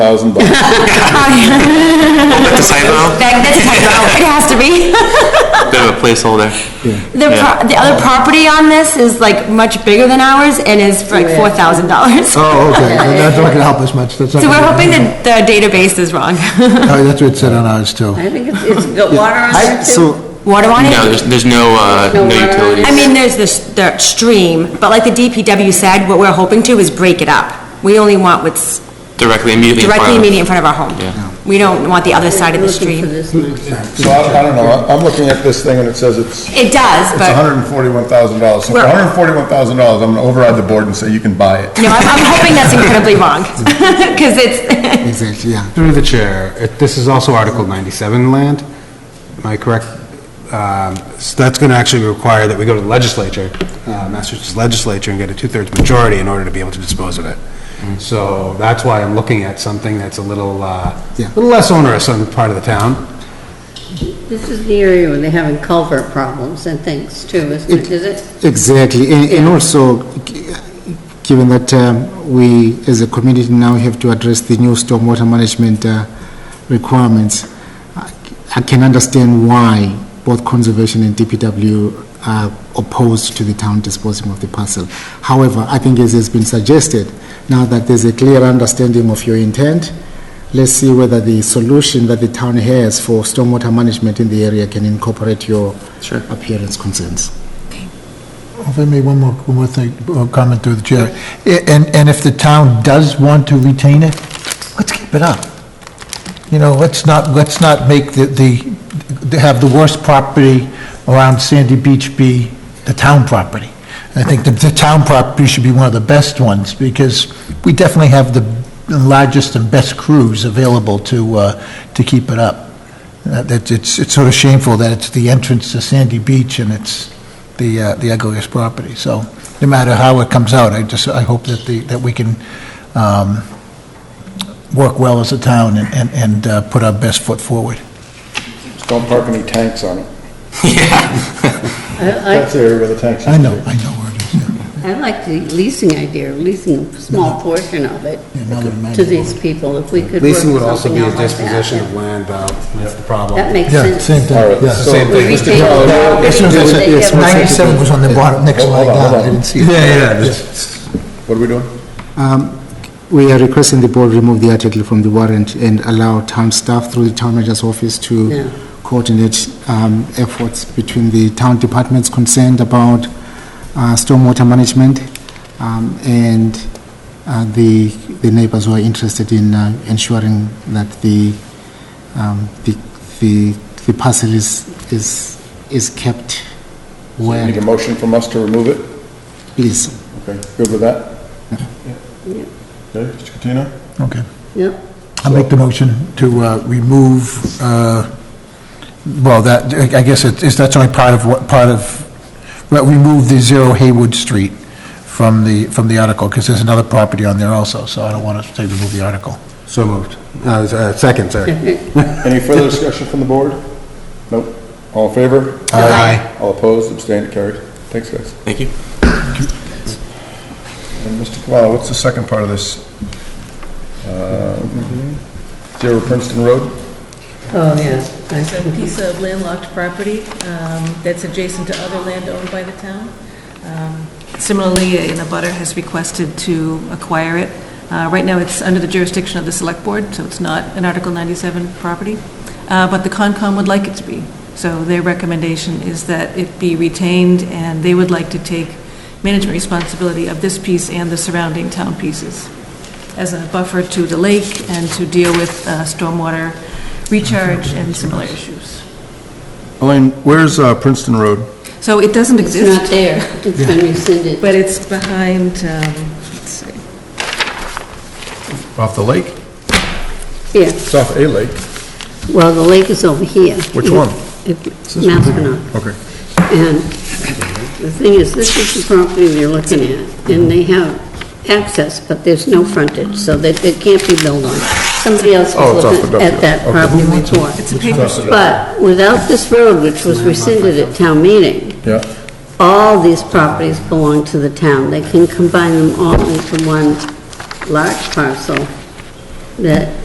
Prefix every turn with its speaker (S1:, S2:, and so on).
S1: thousand bucks.
S2: That's a typo,
S3: That- That's a typo, it has to be.
S2: bit of a placeholder.
S3: The, pro- the other property on this is like much bigger than ours and is for like four thousand dollars.
S4: Oh, okay, so that's not gonna help us much, that's not.
S3: So we're
S4: gonna-
S3: hoping that the database is wrong.
S4: Oh, That's what it said on ours too.
S5: I think it's, it's got water on there too.
S3: Water on it?
S2: No, there's, there's no, uh,
S5: No
S2: no
S5: water.
S2: utilities.
S3: I mean, there's this, the stream, but like the DPW said, what we're hoping to is break it up. We only want what's
S2: Directly, immediately in front
S3: directly
S2: of-
S3: immediately in front of our home. We don't want the other side of the
S5: Looking for
S3: stream.
S5: this now.
S1: So I, I don't know, I- I'm looking at this thing and it says it's, it's
S3: It does, but,
S1: hundred and forty-one thousand dollars. So for
S3: We're-
S1: hundred and forty-one thousand dollars, I'm gonna override the board and say you can buy it.
S3: no, I'm, I'm hoping that's incredibly wrong. Cause it's,
S4: Exactly, yeah.
S6: Through the chair, it- this is also Article 97 land, am I correct? Um, So that's going to actually require that we go to the legislature, uh, Massachusetts legislature, and get a two-thirds majority in order to be able to dispose of it. Mm-hmm. So that's why I'm looking at something that's a little, uh,
S4: Yeah.
S6: little less onerous on the part of the town.
S5: This is the area where they're having culvert problems and things too, isn't it? Is it?
S4: Exactly, and, and also, g- given that um, we, as a community now, have to address the new stormwater management uh, requirements, I- I can understand why both conservation and DPW are opposed to the town disposing of the parcel. However, I think as has been suggested, now that there's a clear understanding of your intent, let's see whether the solution that the town has for stormwater management in the area can incorporate your appearance concerns.
S7: If I may, one more, one more thing, uh, comment through the chair. I- And, and if the town does want to retain it, let's keep it up. You know, let's not, let's not make the, the, to have the worst property around Sandy Beach be the town property. I think the, the town property should be one of the best ones, because we definitely have the largest and best crews available to, uh, to keep it up. Uh, That, it's, it's sort of shameful that it's the entrance to Sandy Beach and it's the, uh, the ugliest property. So no matter how it comes out, I just, I hope that the, that we can, um, work well as a town and, and, and uh, put our best foot forward.
S1: Just Don't park any tanks on it.
S5: I,
S1: That's the area where the tanks.
S7: I know, I know where it is.
S5: I, I like the leasing idea, leasing a small portion of it
S7: Yeah, now that I imagine
S5: to
S7: it.
S5: these people, if we could work
S6: Leasing would also
S5: something
S6: be a
S5: out like that,
S6: disposition of land, though, that's the problem.
S5: That makes
S7: Yeah,
S5: sense.
S7: same thing,
S1: All right,
S7: yeah.
S1: so-
S6: Same thing.
S5: We
S6: Mr.
S5: take the
S6: Keller.
S5: property,
S7: As soon as I
S5: they
S7: said,
S5: give
S7: yes,
S5: us-
S7: 97 was on the bottom, next
S1: Hold
S7: line
S1: on, hold
S7: down, I
S1: on.
S7: didn't see it.
S6: Yeah, yeah, just-
S1: What are we doing?
S4: Um, We are requesting the board remove the article from the warrant and allow town staff through the town manager's office
S5: Yeah.
S4: to coordinate um, efforts between the town departments concerned about uh, stormwater management um, and uh, the the neighbors who are interested in uh, ensuring that the um, the the the parcel is is is kept
S1: So you Need a
S4: well.
S1: motion from us to remove it?
S4: Please,
S1: Okay, good with that? Yeah. Okay, Mr. Catino?
S7: Okay.
S5: Yep.
S7: I'll make the motion to uh, remove, uh, well, that, I guess it is, that's only part of what, part of, well, remove the zero Haywood Street from the, from the article, because there's another property on there also, so I don't want to say remove the article.
S6: So moved. Uh, uh, Second, sorry.
S1: Any further discussion from the board? Nope. All in favor?
S7: Aye.
S1: All opposed, abstained, carried. Thanks, guys.
S2: Thank you.
S1: And Mr. Cavallo, what's the second part of this? Um, Zero Princeton Road?
S5: Oh, yeah.
S8: It's a piece of landlocked property um, that's adjacent to other land owned by the town. Um, Similarly, an abutter has requested to acquire it. Uh, Right now, it's under the jurisdiction of the Select Board, so it's not an Article 97 property, Uh, but the Concom would like it to be. So their recommendation is that it be retained, and they would like to take management responsibility of this piece and the surrounding town pieces as a buffer to the lake and to deal with uh, stormwater recharge and similar issues.
S1: Elaine, where's uh, Princeton Road?
S8: So it doesn't
S5: It's not
S8: exist,
S5: there. It's been rescinded.
S8: but it's behind, um, let's see,
S1: Off the lake?
S5: Yeah,
S1: It's off a lake.
S5: well, the lake is over here.
S1: Which one?
S5: It- Maspinock.
S1: Okay.
S5: And the thing is, this is the property they're looking at, and they have access, but there's no frontage, so that it can't be built on. Somebody else
S1: Oh,
S5: was
S1: it's off
S5: looking
S1: the
S5: at
S1: document.
S5: that
S1: Okay.
S5: property before.
S8: it's a paper street.
S5: But without this road, which was rescinded at town meeting,
S1: Yeah.
S5: all these properties belong to the town. They can combine them all into one large parcel that